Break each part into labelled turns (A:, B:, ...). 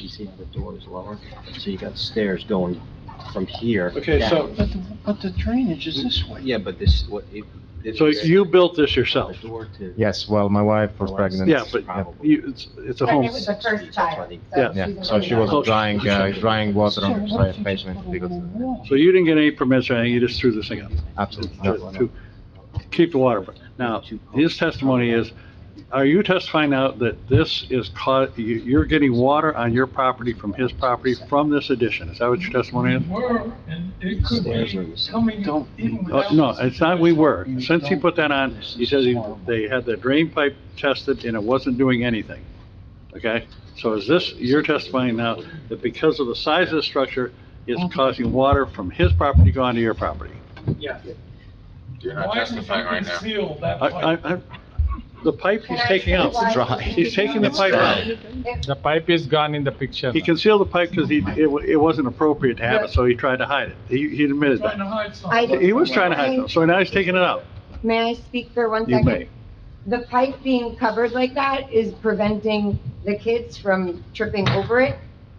A: you see how the door is lower? So you got stairs going from here.
B: Okay, so,
A: down.
C: But, the- but the drainage is this way.
A: Yeah, but this, what, if. this
B: so
A: is
B: you built this
A: The
B: yourself?
A: door to.
D: Yes, well, my wife was
A: Yeah,
D: pregnant.
B: Yeah, but
A: Probably.
B: you, it's, it's a
E: But
B: home.
E: it was the first child.
B: Yeah.
D: Yeah,
E: she's a
D: so she
E: little-
D: was
F: Oh,
B: Close.
D: drying, uh, drying water
C: So
D: on the
C: what if
D: side
C: you just
D: basement
C: put a
D: because,
C: little wall?
B: So you didn't get any permits or anything, you just threw this thing up?
D: absolutely,
B: to-
D: no.
B: to keep the water. Now, his testimony is, are you testifying now that this is ca, you, you're getting water on your property from his property from this addition? Is that what your testimony is?
G: were, and it could
A: Stairs are
G: be
A: the same.
G: coming
C: Don't-
G: in
B: Uh,
G: without.
B: No, it's not we were. Since he put that on, he says he, they had the drain pipe tested and it wasn't doing anything. Okay? So is this, you're testifying now that because of the size of the structure, it's causing water from his property going to your property?
G: Yeah.
H: You're not
G: Why would you
H: testifying right now.
G: conceal that
B: I,
G: pipe?
B: I, I, the pipe he's
E: Can I
B: taking out.
E: see why-
D: Dry.
B: He's taking the
D: It's
B: pipe
D: dry.
B: out.
E: If-
F: The pipe is gone in the picture.
B: He concealed the pipe because he, it, wa- it wasn't appropriate to have it, so he tried to hide it. He, he admitted
G: Trying to
B: that.
G: hide
E: I-
G: something.
B: He was trying to hide it, so now he's taking it out.
E: May I speak for one
B: You
E: second?
B: may.
E: The pipe being covered like that is preventing the kids from tripping over it.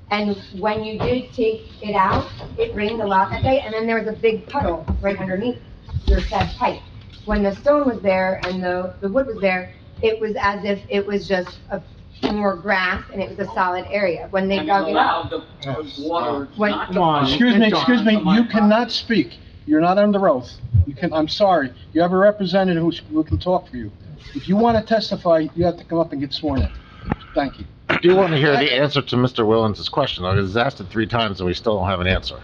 E: And when you did take it out, it rained a lot that day, and then there was a big puddle right underneath your said pipe. When the stone was there and the, the wood was there, it was as if it was just a, more grass and it was a solid area. When they
I: And
E: dug it out,
I: allowed the water
E: Wait,
I: not to
C: Come on,
I: come
C: excuse me, excuse me,
I: onto my
C: you
I: property.
C: cannot speak. You're not under oath. You can, I'm sorry, you have a representative who's, who can talk for you. If you want to testify, you have to come up and get sworn in. Thank you.
D: I do want to hear the answer to Mr. Willens' question, though, because he's asked it three times and we still don't have an answer.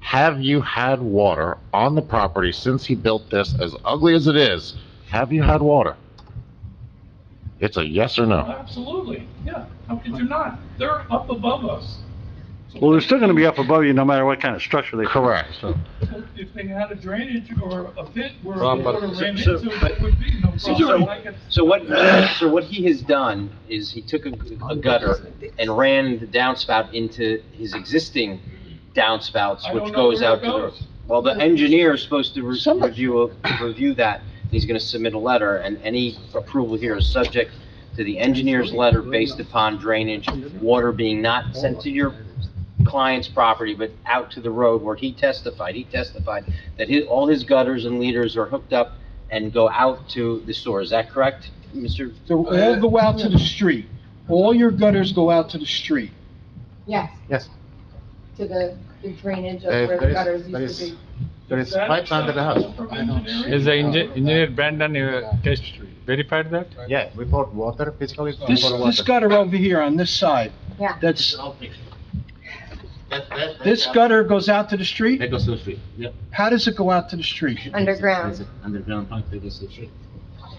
D: Have you had water on the property since he built this, as ugly as it is? Have you had water? It's a yes or no.
G: Absolutely, yeah. How could you not? They're up above us.
B: Well, they're still gonna be up above you no matter what kind of structure they.
D: Correct.
G: If they had a drainage or a pit where
F: Well,
G: it
F: but-
G: would have ran
F: so-
G: into, it would be no problem. I could-
I: So what, so what he has done is he took a a gutter and ran the downspout into his existing
G: I
I: downspouts,
G: don't
I: which
G: know
I: goes
G: where
I: out to
G: it
I: the.
G: goes.
I: Well, the engineer is supposed to re-
C: Somebody-
I: review, a- review that. He's gonna submit a letter, and any approval here is subject to the engineer's letter based upon drainage, water being not sent to your client's property, but out to the road where he testified. He testified that his, all his gutters and leaders are hooked up and go out to the store. Is that correct, Mr.?
C: So all go out to the street. All your gutters go out to the street.
E: yes,
D: Yes,
E: to the the drainage of where
D: Uh, there
E: the
D: is-
E: gutters
D: there
E: used to
D: is-
E: be.
D: there
G: Is that acceptable from engineering?
F: Is the engi- engineer Brandon uh, test verified that?
D: Yeah, we bought water, physically. we
C: This,
D: bought
C: this
D: water.
C: gutter over here on this side,
E: Yeah.
C: that's, this gutter goes out to the street?
H: That goes to the street, yep.
C: How does it go out to the street?
H: There's
E: Underground.
H: an underground pipe that goes to the street.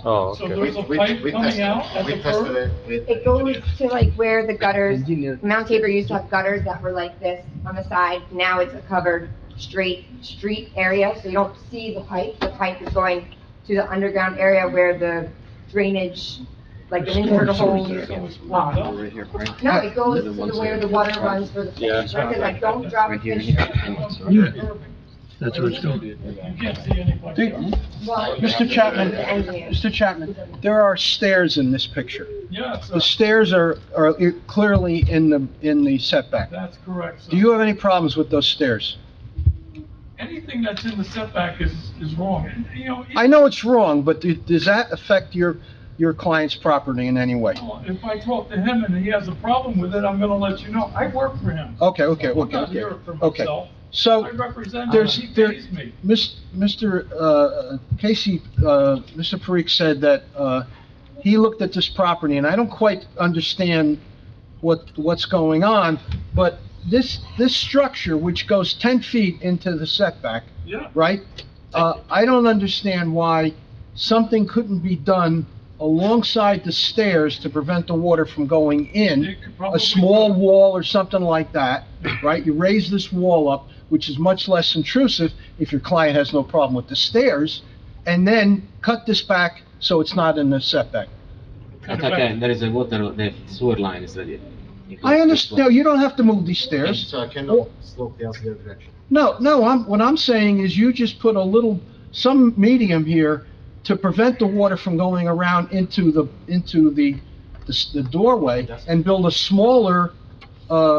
F: Oh,
G: So
F: okay.
G: there's a
D: We-
G: pipe
D: we
G: coming
D: tested-
G: out at
D: we
G: the
D: tested
G: curb?
D: it with-
E: It goes to like where the gutters, Mount Tabor used to have gutters that were like this on the side. Now it's a covered straight street area, so you don't see the pipe. The pipe is going to the underground area where the drainage, like an internal hole. No,
A: Right here, right?
E: it goes to the where the water runs for the fish. Because like, don't drop a
A: Right here,
E: fish.
A: here.
G: That's what it's going to do. You can't see anybody.
C: Do-
E: Well,
C: Mr. Chapman,
E: the engineer.
C: Mr. Chapman, there are stairs in this picture.
G: Yeah, sir.
C: The stairs are, are clearly in the, in the setback.
G: That's correct, sir.
C: Do you have any problems with those stairs?
G: Anything that's in the setback is, is wrong. And, You know,
C: I know it's wrong, but do- does that affect your, your client's property in any way?
G: If I talk to him and he has a problem with it, I'm gonna let you know. I work for him.
C: Okay, okay,
G: I'm
C: okay,
G: not
C: okay,
G: here for
C: okay.
G: myself. I
C: So,
G: represent him,
C: there's-
G: he
C: there-
G: pays me.
C: Mis- Mr. uh, Casey, uh, Mr. Parikh said that uh, he looked at this property, and I don't quite understand what, what's going on, but this, this structure, which goes 10 feet into the setback,
G: Yeah,
C: right? Uh, I don't understand why something couldn't be done alongside the stairs to prevent the water from going in.
G: It could
C: A
G: probably-
C: small wall or something like that, right? You raise this wall up, which is much less intrusive if your client has no problem with the stairs, and then cut this back so it's not in the setback.
G: could
H: That's
G: affect-
H: okay, there is a water, the sewer line is ready.
C: I understand, no, you don't have to move these stairs.
D: So I cannot slope the other direction.
C: No, no, I'm, what I'm saying is you just put a little, some medium here to prevent the water from going around into the, into the, the s- the doorway and build a smaller, uh,